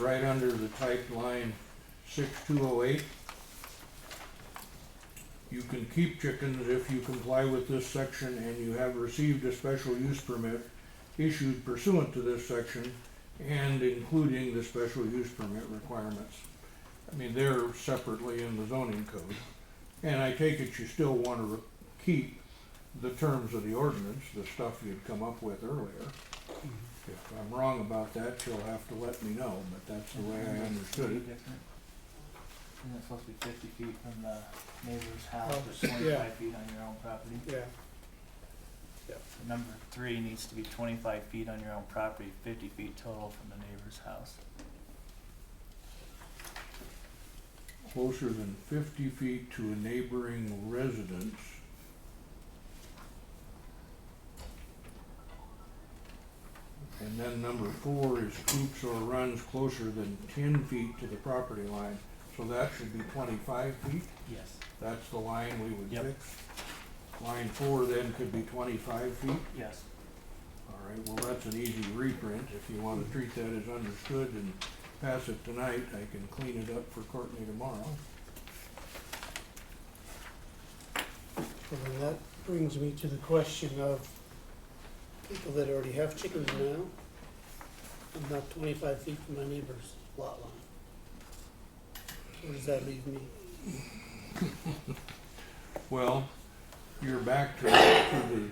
right under the type line six two oh eight. You can keep chickens if you comply with this section and you have received a special use permit issued pursuant to this section and including the special use permit requirements. I mean, they're separately in the zoning code. And I take it you still wanna re- keep the terms of the ordinance, the stuff you'd come up with earlier. If I'm wrong about that, you'll have to let me know, but that's the way I understood it. Different. Isn't it supposed to be fifty feet from the neighbor's house, Oh, or yeah. twenty-five feet on your own property? Yeah, Number three needs to be twenty-five feet on your own property, fifty feet total from the neighbor's house. Closer than fifty feet to a neighboring residence. And then number four is coops or runs closer than ten feet to the property line, so that should be twenty-five feet, Yes. that's the line we would Yep. fix. Line four then could be twenty-five feet. Yes. All right, well, that's an easy reprint. If you want to treat that as understood and pass it tonight, I can clean it up for Courtney tomorrow. and then that brings me to the question of people that already have chickens now. I'm not twenty-five feet from my neighbor's lot line. Where does that leave me? Well, you're back to, to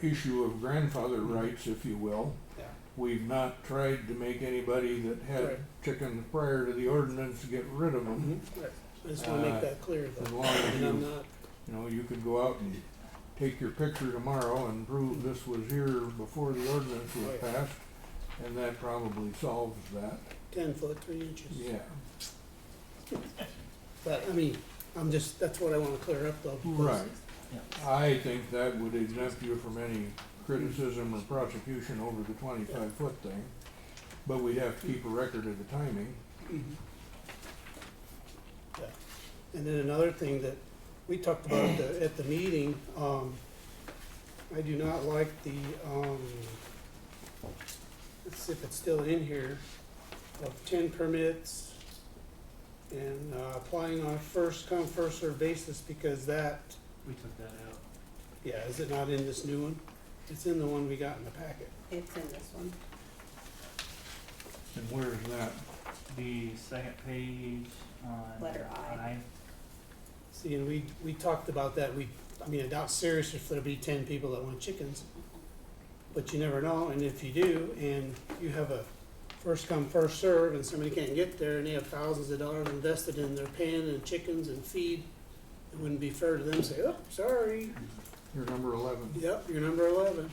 the issue of grandfather rights, if you will. Yeah. We've not tried to make anybody that had Right. chickens prior to the ordinance get rid of them. I just wanna Uh, make that clear As though, long as and I'm you, not, you know, you could go out and take your picture tomorrow and prove this was here before the ordinance was Right. passed. And that probably solves that, ten foot, three inches. yeah. But, I mean, I'm just, that's what I wanna clear up though. because Right. Yeah. I think that would exempt you from any criticism or prosecution over the twenty-five foot thing, but we'd have to keep a record of the timing. Mhm. Yeah. And then another thing that we talked about at the, at the meeting, um, I do not like the, um, let's see if it's still in here, of ten permits and, uh, applying on a first come, first served basis because that, We took that out. yeah, is it not in this new one? It's in the one we got in the packet. It's in this one. And where's that? The second page on. Letter I. See, and we, we talked about that, we, I mean, I doubt seriously if there'll be ten people that want chickens. But you never know, and if you do, and you have a first come, first serve, and somebody can't get there, and they have thousands of dollars invested in their pen and chickens and feed, it wouldn't be fair to them to say, oh, sorry, Your number eleven? yep, you're number eleven.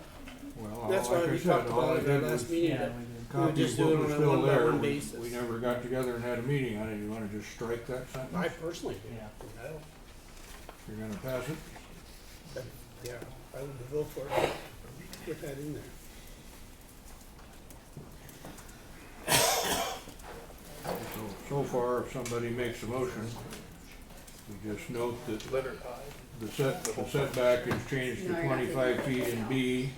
Well, all- That's why like I we said, talked all I about it at did our last was meeting, Yeah, that we did. we would copy just what do it was on a still there. one-by-one We- basis. We never got together and had a meeting on it. You wanna just strike that I sentence? personally Yeah. do. No. You're gonna pass it? But, Yeah, I would vote for it, get that in there. So, so far, if somebody makes a motion, we just note that the set, the setback is changed to No, you're not doing twenty-five that. feet in B,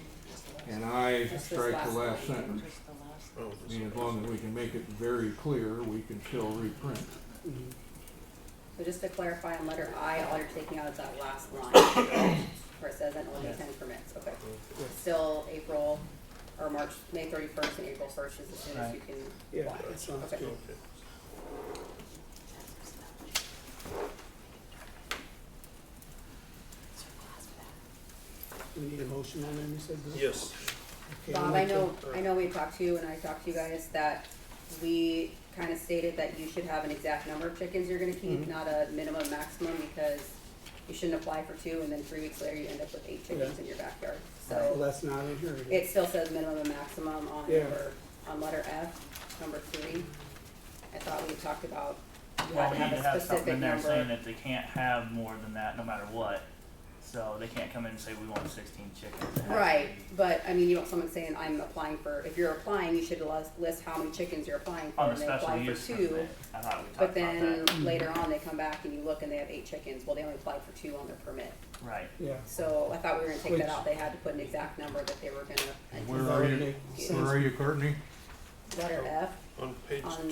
and I It's this strike the last line. sentence. Oh, I mean, as long as we can make it very clear, we can still reprint. Mhm. So just to clarify, on letter I, all you're taking out is that last line, where it says, and only Yes. ten permits, okay. Still April, or March, May thirty-first and April first is as soon as you can Yeah, apply. that sounds Okay. good. We need a motion on them, you said? Bill? Yes, Okay, I'll Bob, I make a- know, I know we talked to you and I talked to you guys that we kinda stated that you should have an exact number of chickens you're gonna keep, Mhm. not a minimum maximum, because you shouldn't apply for two and then three weeks later you end up with eight chickens Yeah. in your backyard, Well, so. that's not in here. is it? It still says minimum and maximum on Yeah. number, on letter F, number three. I thought we talked about, you Well, had we to need to have a have something specific in there saying number, that they can't have more than that, no matter what. So they can't come in and say, we want sixteen chickens. It has to right, be but I mean, you don't, someone saying, I'm applying for, if you're applying, you should list, list how many chickens you're applying for On a and then special apply for two. use permit, I thought we But talked then about that, later on, they come back and you look and they have eight chickens, well, they only applied for two on their permit. right. Yeah. So I thought we were gonna take Which- that out, they had to put an exact number that they were gonna, Where Does are that you, make where sense? are you, Courtney? letter F, On page on